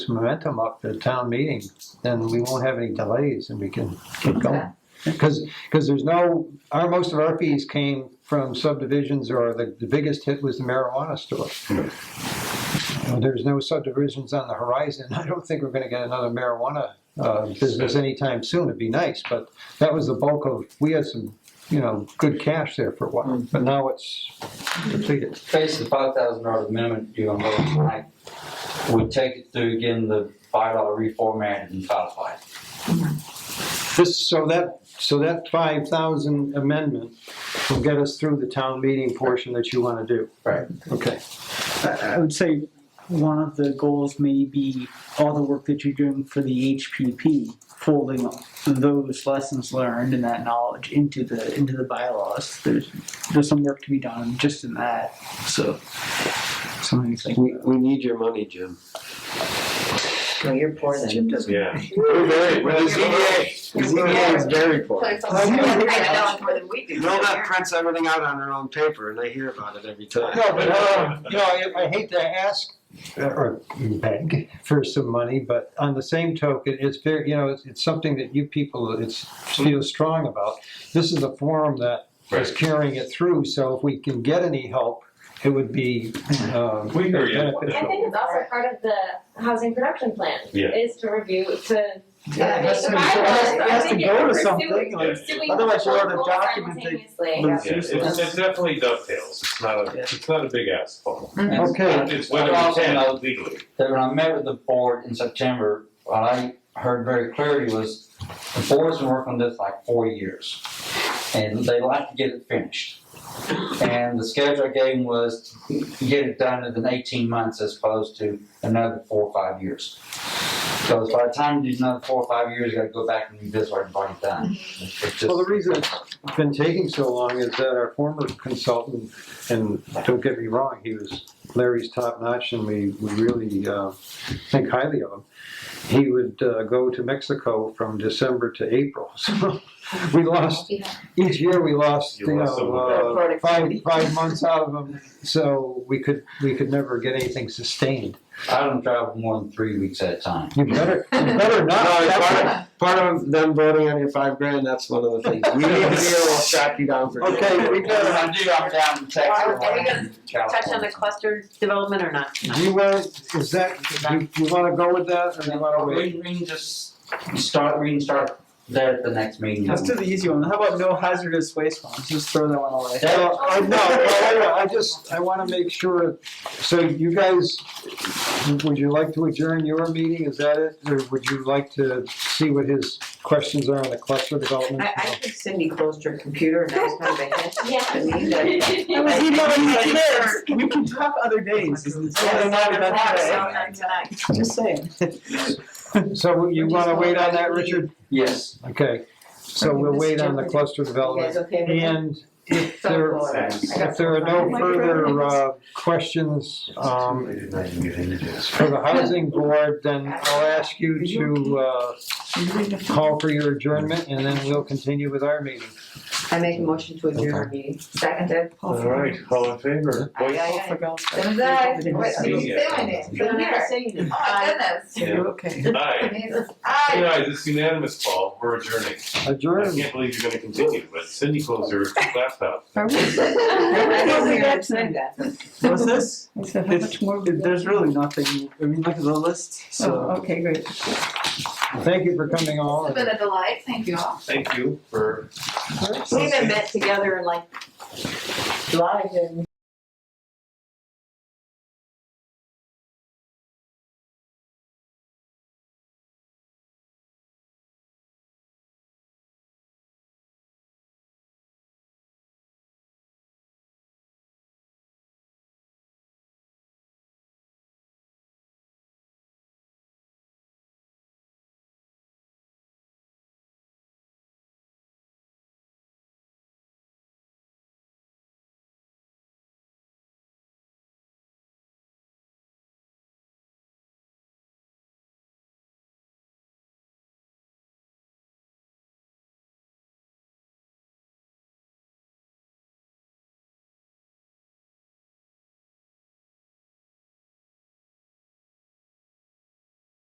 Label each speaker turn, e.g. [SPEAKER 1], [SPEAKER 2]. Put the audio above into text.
[SPEAKER 1] this momentum up to town meeting, then we won't have any delays and we can keep going. Because, because there's no, our, most of our fees came from subdivisions or the, the biggest hit was the marijuana store. Uh, There's no subdivisions on the horizon. I don't think we're gonna get another marijuana, uh, business anytime soon. It'd be nice, but that was the bulk of, we had some, you know, good cash there for a while, but now it's depleted.
[SPEAKER 2] face the five thousand dollar amendment due on vote tonight, we take it through again the five dollar reformatted and codified.
[SPEAKER 1] This, so that, so that five thousand amendment will get us through the town meeting portion that you wanna do.
[SPEAKER 2] Right.
[SPEAKER 1] Okay,
[SPEAKER 3] I I would say one of the goals may be all the work that you're doing for the HPP, folding those lessons learned and that knowledge into the into the bylaws. There's there's some work to be done just in that. So something to think
[SPEAKER 4] We,
[SPEAKER 3] about.
[SPEAKER 4] we need your money, Jim.
[SPEAKER 5] No, you're poor then.
[SPEAKER 3] Jim doesn't.
[SPEAKER 6] Yeah.
[SPEAKER 4] We're very,
[SPEAKER 6] well, the
[SPEAKER 4] ZBA,
[SPEAKER 5] the ZBA is
[SPEAKER 4] very poor.
[SPEAKER 5] Plays on the same kind of dollar more than we do.
[SPEAKER 4] Milnet prints everything out on their own paper, and I hear about it every time.
[SPEAKER 1] no, but, uh, you know, I, I hate to ask uh, or beg for some money, but on the same token, it's very, you know, it's, it's something that you people, it's, feel strong about. This is a forum that is
[SPEAKER 6] Right.
[SPEAKER 1] carrying it through, so if we can get any help, it would be, um.
[SPEAKER 6] We hear you.
[SPEAKER 7] I think it's also part of the housing production plan.
[SPEAKER 6] Yeah.
[SPEAKER 7] Is to review, to.
[SPEAKER 4] Yeah, it has to be-
[SPEAKER 7] I
[SPEAKER 4] it has- it has to
[SPEAKER 7] think
[SPEAKER 4] go to
[SPEAKER 7] we're pursuing-
[SPEAKER 4] something, like,
[SPEAKER 7] pursuing
[SPEAKER 4] otherwise you'll have a
[SPEAKER 7] multiple goals
[SPEAKER 4] document that-
[SPEAKER 7] simultaneously.
[SPEAKER 4] Yeah.
[SPEAKER 6] Yeah, it's, it definitely dovetails, it's not a, it's not a big ass problem.
[SPEAKER 1] Okay.
[SPEAKER 2] And
[SPEAKER 6] It's whether we
[SPEAKER 2] Also
[SPEAKER 6] can
[SPEAKER 2] note
[SPEAKER 6] legally.
[SPEAKER 2] That when I met with the board in September, what I heard very clearly was the board's been working on this like four years. And they like to get it finished. And the schedule I gave them was to get it done within eighteen months as opposed to another four or five years. Because by the time you do another four or five years, you gotta go back and do this or bring it done. It's just-
[SPEAKER 1] Well, the reason it's been taking so long is that our former consultant, and don't get me wrong, he was Larry's top notch and we, we really, uh, think highly of him. He would, uh, go to Mexico from December to April, so we lost,
[SPEAKER 7] Yeah.
[SPEAKER 1] each year we lost,
[SPEAKER 6] You
[SPEAKER 1] you
[SPEAKER 6] lost some of
[SPEAKER 5] that.
[SPEAKER 1] know, uh, five,
[SPEAKER 5] Productivity.
[SPEAKER 1] five months out of him. So we could, we could never get anything sustained.
[SPEAKER 2] I don't travel more than three weeks at a time.
[SPEAKER 1] You better, you better
[SPEAKER 4] No,
[SPEAKER 1] not.
[SPEAKER 4] it's
[SPEAKER 1] That's-
[SPEAKER 4] part, of, part of them voting on your five grand, that's one of the things. We need to be able to track you down for.
[SPEAKER 1] Okay, we
[SPEAKER 2] Because
[SPEAKER 1] got,
[SPEAKER 2] I do, I'm down in Texas.
[SPEAKER 5] Are we gonna Touch on the
[SPEAKER 2] California.
[SPEAKER 5] cluster development or not?
[SPEAKER 1] do you want, is that, you, you wanna go with that or you wanna wait?
[SPEAKER 2] We, we can just start, we can start there at the next meeting.
[SPEAKER 3] Let's do the easy one. How about no hazardous waste ones? Just throw that one away.
[SPEAKER 2] That-
[SPEAKER 1] Well, I, no, no, no, I just, I wanna make sure, so you guys, would you like to adjourn your meeting, is that it? Or would you like to see what his questions are on the cluster development?
[SPEAKER 5] I, I think Cindy closed her computer and I was kind of ahead.
[SPEAKER 7] Yeah.
[SPEAKER 3] I
[SPEAKER 8] Oh
[SPEAKER 3] was emailing my
[SPEAKER 5] Yes.
[SPEAKER 3] kids. We can talk other days.
[SPEAKER 5] Yeah,
[SPEAKER 3] not
[SPEAKER 5] seven
[SPEAKER 3] about
[SPEAKER 5] o'clock,
[SPEAKER 3] today.
[SPEAKER 5] so not tonight.
[SPEAKER 3] Just saying.
[SPEAKER 1] So you wanna wait on that, Richard?
[SPEAKER 2] Yes.
[SPEAKER 1] Okay, so we'll wait on the cluster
[SPEAKER 5] You guys
[SPEAKER 1] development.
[SPEAKER 5] okay with that?
[SPEAKER 1] And if there, if there are no further, uh, questions, um, for the housing board, then I'll ask you to, uh, call for your adjournment, and then we'll continue with our meeting.
[SPEAKER 5] I make a motion to adjourn our meeting. Seconded.
[SPEAKER 6] All right, all in favor?
[SPEAKER 5] Aye, aye, aye.
[SPEAKER 8] Then I, what you
[SPEAKER 6] Yeah.
[SPEAKER 8] doing it?
[SPEAKER 5] You're
[SPEAKER 8] You're
[SPEAKER 5] never
[SPEAKER 8] here.
[SPEAKER 5] saying
[SPEAKER 8] Oh
[SPEAKER 5] it.
[SPEAKER 8] my goodness.
[SPEAKER 6] Yeah.
[SPEAKER 3] okay.
[SPEAKER 6] Aye.
[SPEAKER 8] I-
[SPEAKER 6] Guys, it's unanimous, Paul, we're adjourning. I
[SPEAKER 1] Adjourn.
[SPEAKER 6] can't believe you're gonna continue, but Cindy closed her laptop.
[SPEAKER 5] I
[SPEAKER 8] Well,
[SPEAKER 5] don't
[SPEAKER 8] we
[SPEAKER 5] think
[SPEAKER 8] had
[SPEAKER 5] I've
[SPEAKER 8] to-
[SPEAKER 5] said that.
[SPEAKER 3] What's this?
[SPEAKER 8] I said, how much more? we got?
[SPEAKER 3] There's really nothing. I mean, look at the list. So.
[SPEAKER 8] Oh, okay, great.
[SPEAKER 1] Thank you for coming all.
[SPEAKER 8] It's been a delight, thank you all.
[SPEAKER 6] Thank you for
[SPEAKER 5] We haven't met together in like July, and